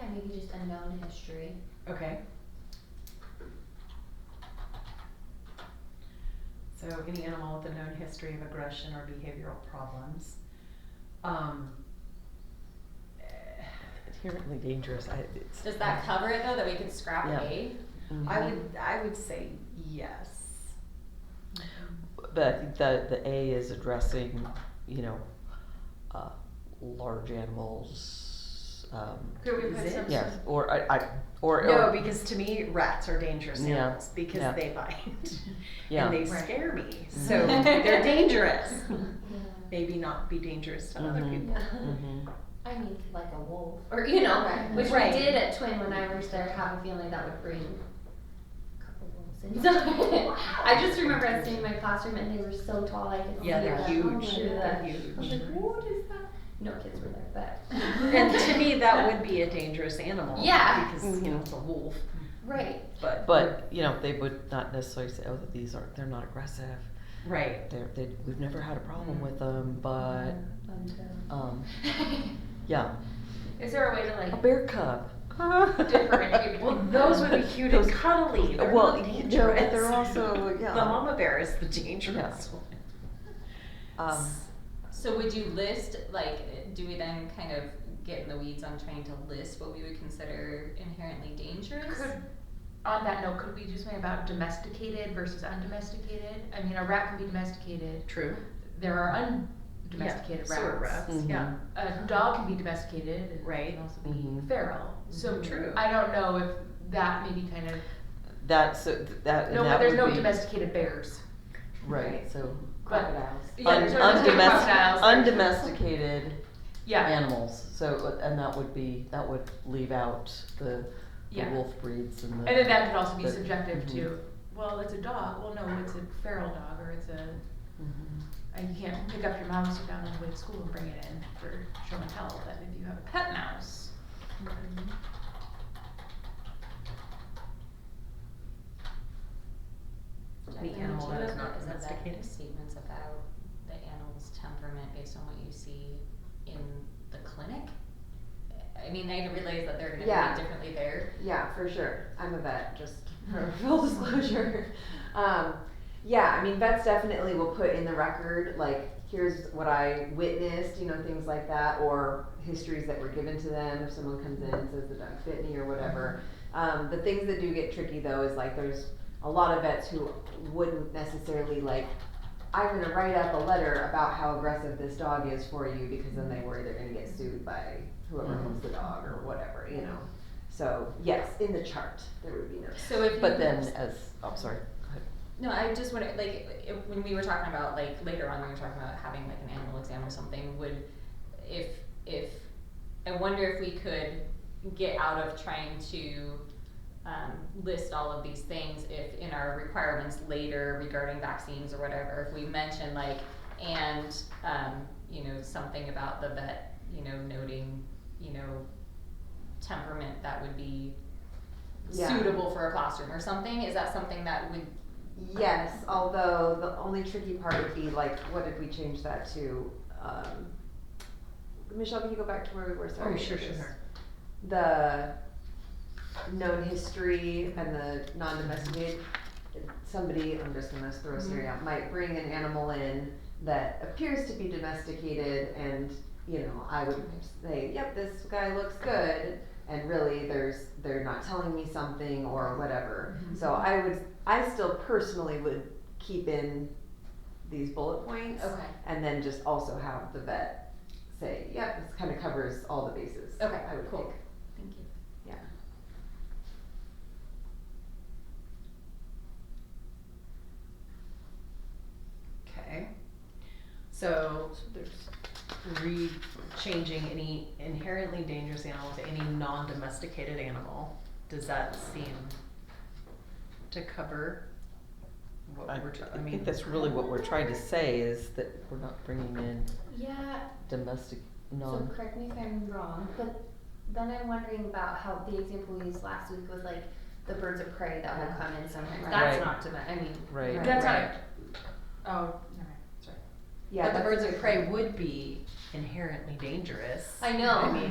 and maybe just unknown history. Okay. So any animal with a known history of aggression or behavioral problems. Um. eh, inherently dangerous. I, it's, Does that cover it though, that we can scrap Yeah. A? I Mhm. would, I would say yes. But the the A is addressing, you know, uh, large animals. Um, Could we Is put it? some? yes, or I, I or, No, or because to me, rats are dangerous Yeah. animals because Yeah. they bite yeah. Mm-hmm. and they Right. scare me. So they're dangerous. Yeah. Maybe not be dangerous to other Mhm. people. Mhm. I mean, like a wolf, or you know, which Right. we did at Twin when I was there. Have a feeling that would bring a couple wolves in. So I just remember I was sitting in my classroom and they were so tall. I could Yeah, see they're them. huge. Oh my They're God. I was huge. like, what is that? No kids were there, but And to me, that would be a dangerous animal. Yeah. Because you know it's a wolf, right. but But you know, they would not necessarily say, "Oh, that these are they're not aggressive. right. They're, they we've never had a problem with them." But um, yeah, Is there a way to a like bear cub. differentiate? Well, those would be cute and Those- cuddly. They're well, not you know, dangerous. they're also- yeah. The mama bear is the dangerous one. Um, So would you list, like, do we then kind of get in the weeds on trying to list what we would consider inherently dangerous? Could, on that note, could we do something about domesticated versus undomesticated? I mean, a rat can be domesticated. True. There are Yeah, undomesticated sewer rats. Mhm. Yeah. A dog can be domesticated. and Right. Can also be Mhm. feral. So True. I don't know if that maybe kind of that's that. and no, that but there's would no be- domesticated bears. Right. So Crocodiles. Yeah, un- there's no domesticated undomest- crocodiles. undomesticated Yeah. animals. So uh, and that would be that would leave out the, the Yeah. wolf breeds and the And then that could also be But- subjective mhm. to. Well, it's a dog. Well, no, it's a feral dog, or it's a Mhm. And you can't pick up your mouse down on the way to school and bring it in for show and tell, but if you have a pet mouse. The animal that is not domesticated. Statements about the animal's temperament based on what you see in the clinic? I mean, I realize that they're gonna Yeah. be differently there. Yeah, for sure. I'm a vet, just for full disclosure. Um, yeah, I mean, vets definitely will put in the record, like, here's what I witnessed, you know, things like that, or histories that were given to them if someone comes in and says the dog bit me or whatever. Um, the things that do get tricky though is like there's a lot of vets who wouldn't necessarily like, I'm gonna write up a letter about how aggressive this dog is for you because then they worry they're gonna get sued by whoever owns the dog or whatever, you know. So yes, in the chart, there would be no. So if you. But then as oh, I'm sorry. Go ahead. No, I just wonder, like, if, when we were talking about, like, later on, we were talking about having like an animal exam or something, would, if, if, I wonder if we could get out of trying to, um, list all of these things if in our requirements later regarding vaccines or whatever, if we mention like, and, um, you know, something about the vet, you know, noting, you know, temperament that would be Yeah. suitable for a classroom or something, is that something that would Yes, although the only tricky part would be like, what did we change that to? Um, Michelle, can you go back to where we were? Sorry. Oh, sure, sure, Just sure. The known history and the non-domesticated. Somebody, I'm just gonna Mm-hmm. throw a scenario out, might bring an animal in that appears to be domesticated, and you know, I would say, yep, this guy looks good, and really, there's they're not telling me something or Mm-hmm. whatever. So I would, I still personally would keep in these bullet points. Okay. And then just also have the vet say, yep, this kind of covers all the bases. Okay, I would cool. think. Thank you. Yeah. Okay. So So there's re changing any inherently dangerous animal to any non-domesticated animal. Does that seem to cover what I, we're? T- I I mean, think that's really what we're trying to say is that we're not bringing in Yeah, domestic So non. correct me if I'm wrong, but then I'm wondering about how the example we used last week with like the birds of prey that will come in sometimes. That's Right. not to, I mean, Right. Right. That's not, oh, never mind, sorry. Yeah, but the that's- birds of prey would be inherently dangerous. I know. I mean,